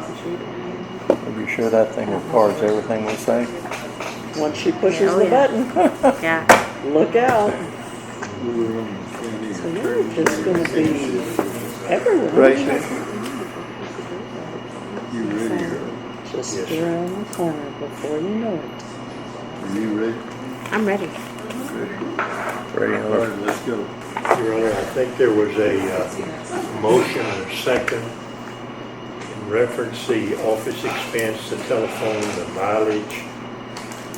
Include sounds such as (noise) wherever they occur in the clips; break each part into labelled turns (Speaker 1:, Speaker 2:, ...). Speaker 1: Are you sure that thing records everything we say?
Speaker 2: Once she pushes
Speaker 3: Oh,
Speaker 2: the
Speaker 3: yeah.
Speaker 2: button, (laughs)
Speaker 3: Yeah.
Speaker 2: look out. So
Speaker 4: Right.
Speaker 2: you're just gonna be everywhere. aren't you?
Speaker 4: You ready? Earl?
Speaker 2: Just around the corner before you know it.
Speaker 4: Are you ready?
Speaker 3: I'm ready.
Speaker 1: Ready?
Speaker 4: All right, let's go.
Speaker 5: Your Honor, I think there was a uh, motion and a second in reference the office expense, the telephone, the mileage,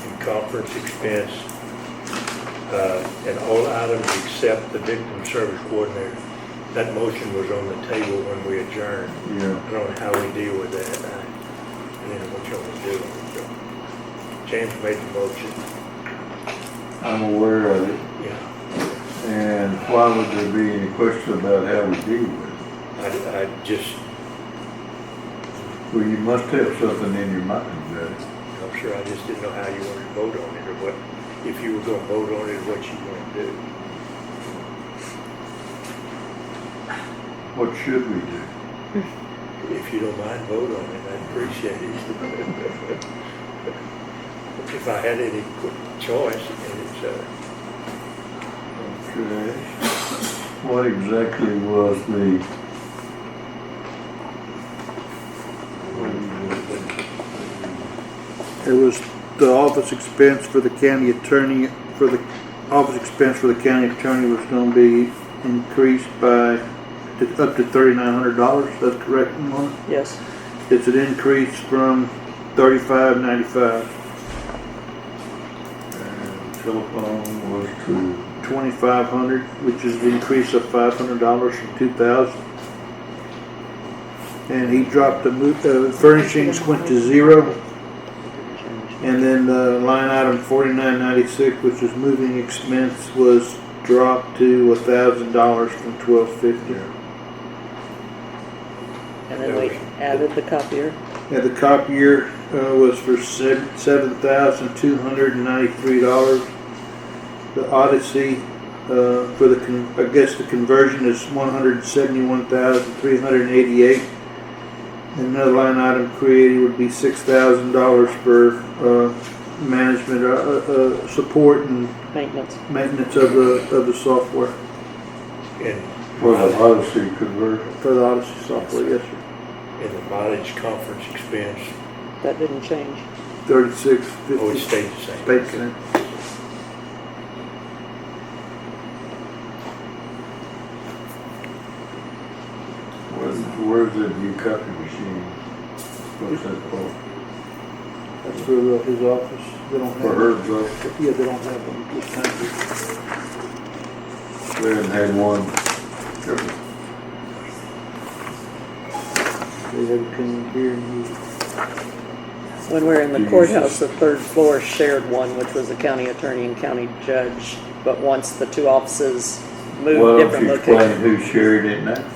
Speaker 5: and conference expense, uh, and all items except the victim service coordinator. That motion was on the table when we adjourned.
Speaker 4: Yeah.
Speaker 5: I don't know how we deal with that. I I don't know what y'all want to do. So, James made the motion.
Speaker 4: I'm aware of it.
Speaker 5: Yeah.
Speaker 4: And why would there be any question about how we deal with it?
Speaker 5: I, I just,
Speaker 4: Well, you must have something in your mind about it.
Speaker 5: I'm sure, I just didn't know how you wanted to vote on it, or what, if you were gonna vote on it, what you wanted to do.
Speaker 4: What should we do?
Speaker 5: If you don't mind, vote on it, I'd appreciate it. (laughs) If I had any qu- choice, and it's, uh,
Speaker 4: Okay. What exactly was the?
Speaker 6: It was the office expense for the county attorney, for the, office expense for the county attorney was gonna be increased by to- up to thirty-nine hundred dollars, that's correct, Mona?
Speaker 2: Yes,
Speaker 6: It's an increase from thirty-five ninety-five,
Speaker 4: And Telephone was to,
Speaker 6: twenty-five hundred, which is the increase of five hundred dollars from two thousand. And he dropped the mo- uh, furnishings went to zero, And then the line item forty-nine ninety-six, which was moving expense, was dropped to a thousand dollars from twelve fifty.
Speaker 2: and then we added the copier.
Speaker 6: Yeah, the copier, uh, was for seven, seven thousand two hundred and ninety-three dollars. The Odyssey, uh, for the, con- I guess the conversion is one hundred and seventy-one thousand three hundred and eighty-eight. And Another line item created would be six thousand dollars for, uh, management, uh, uh, uh, support and
Speaker 2: Maintenance.
Speaker 6: maintenance of the, of the software,
Speaker 5: and.
Speaker 4: for the Odyssey conversion.
Speaker 6: for the Odyssey software, yes, sir.
Speaker 5: And the mileage conference expense,
Speaker 2: That didn't change.
Speaker 6: Thirty-six fifty.
Speaker 5: always stayed the same.
Speaker 6: State cent.
Speaker 4: Where's, where's the new copy machine? What's that for?
Speaker 6: That's for uh, his office, they don't
Speaker 4: For
Speaker 6: have,
Speaker 4: Herb's office?
Speaker 6: yeah, they don't have them this time.
Speaker 4: They hadn't had one.
Speaker 6: They have come here and he,
Speaker 2: When we were in the courthouse, the third floor shared one, which was the county attorney and county judge. But once the two offices
Speaker 4: Well,
Speaker 2: moved
Speaker 4: if
Speaker 2: different
Speaker 4: you explain
Speaker 2: locations.
Speaker 4: who shared it now.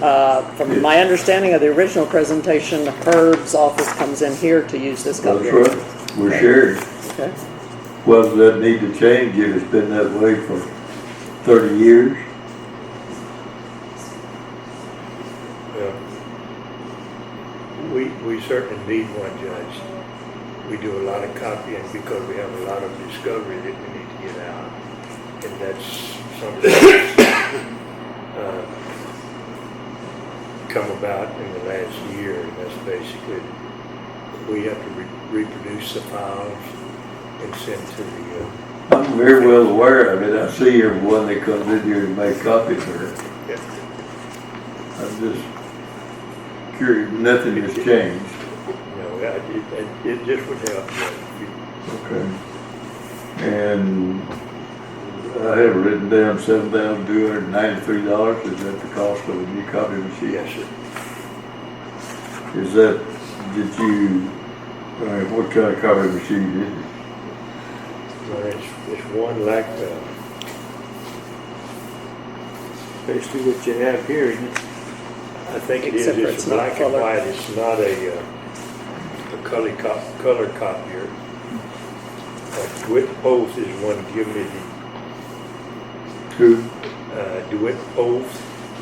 Speaker 2: Uh, from my understanding of the original presentation, Herb's office comes in here to use this
Speaker 4: That's
Speaker 2: copier.
Speaker 4: right. We're sharing.
Speaker 2: Okay.
Speaker 4: Well, does that need to change if it's been that way for thirty years?
Speaker 5: Yeah. We, we certainly need one judge. We do a lot of copying because we have a lot of discovery that we need to get out. And that's something uh, come about in the last year. And that's basically, we have to re- reproduce the files and send to the, uh,
Speaker 4: I'm very well aware of it. I see everyone that comes in here and make copies of it. I'm just curious, nothing has changed.
Speaker 5: you know, it- it, it just would help. you know,
Speaker 4: Okay. And I have written down seven thousand two hundred and ninety-three dollars. Is that the cost of a new copy
Speaker 5: if you-
Speaker 4: machine?
Speaker 5: Yes, sir.
Speaker 4: Is that, did you, uh, what kind of copy machine is it?
Speaker 5: Well, It's, it's one like, uh,
Speaker 6: basically what you have here, isn't it?
Speaker 5: I think it is,
Speaker 2: Except for
Speaker 5: it's
Speaker 2: it's not
Speaker 5: black and
Speaker 2: colored.
Speaker 5: white, it's not a, uh, a color cop, color copier. Uh, DeWitt Oath is one, give me the,
Speaker 4: Who?
Speaker 5: uh, DeWitt Oath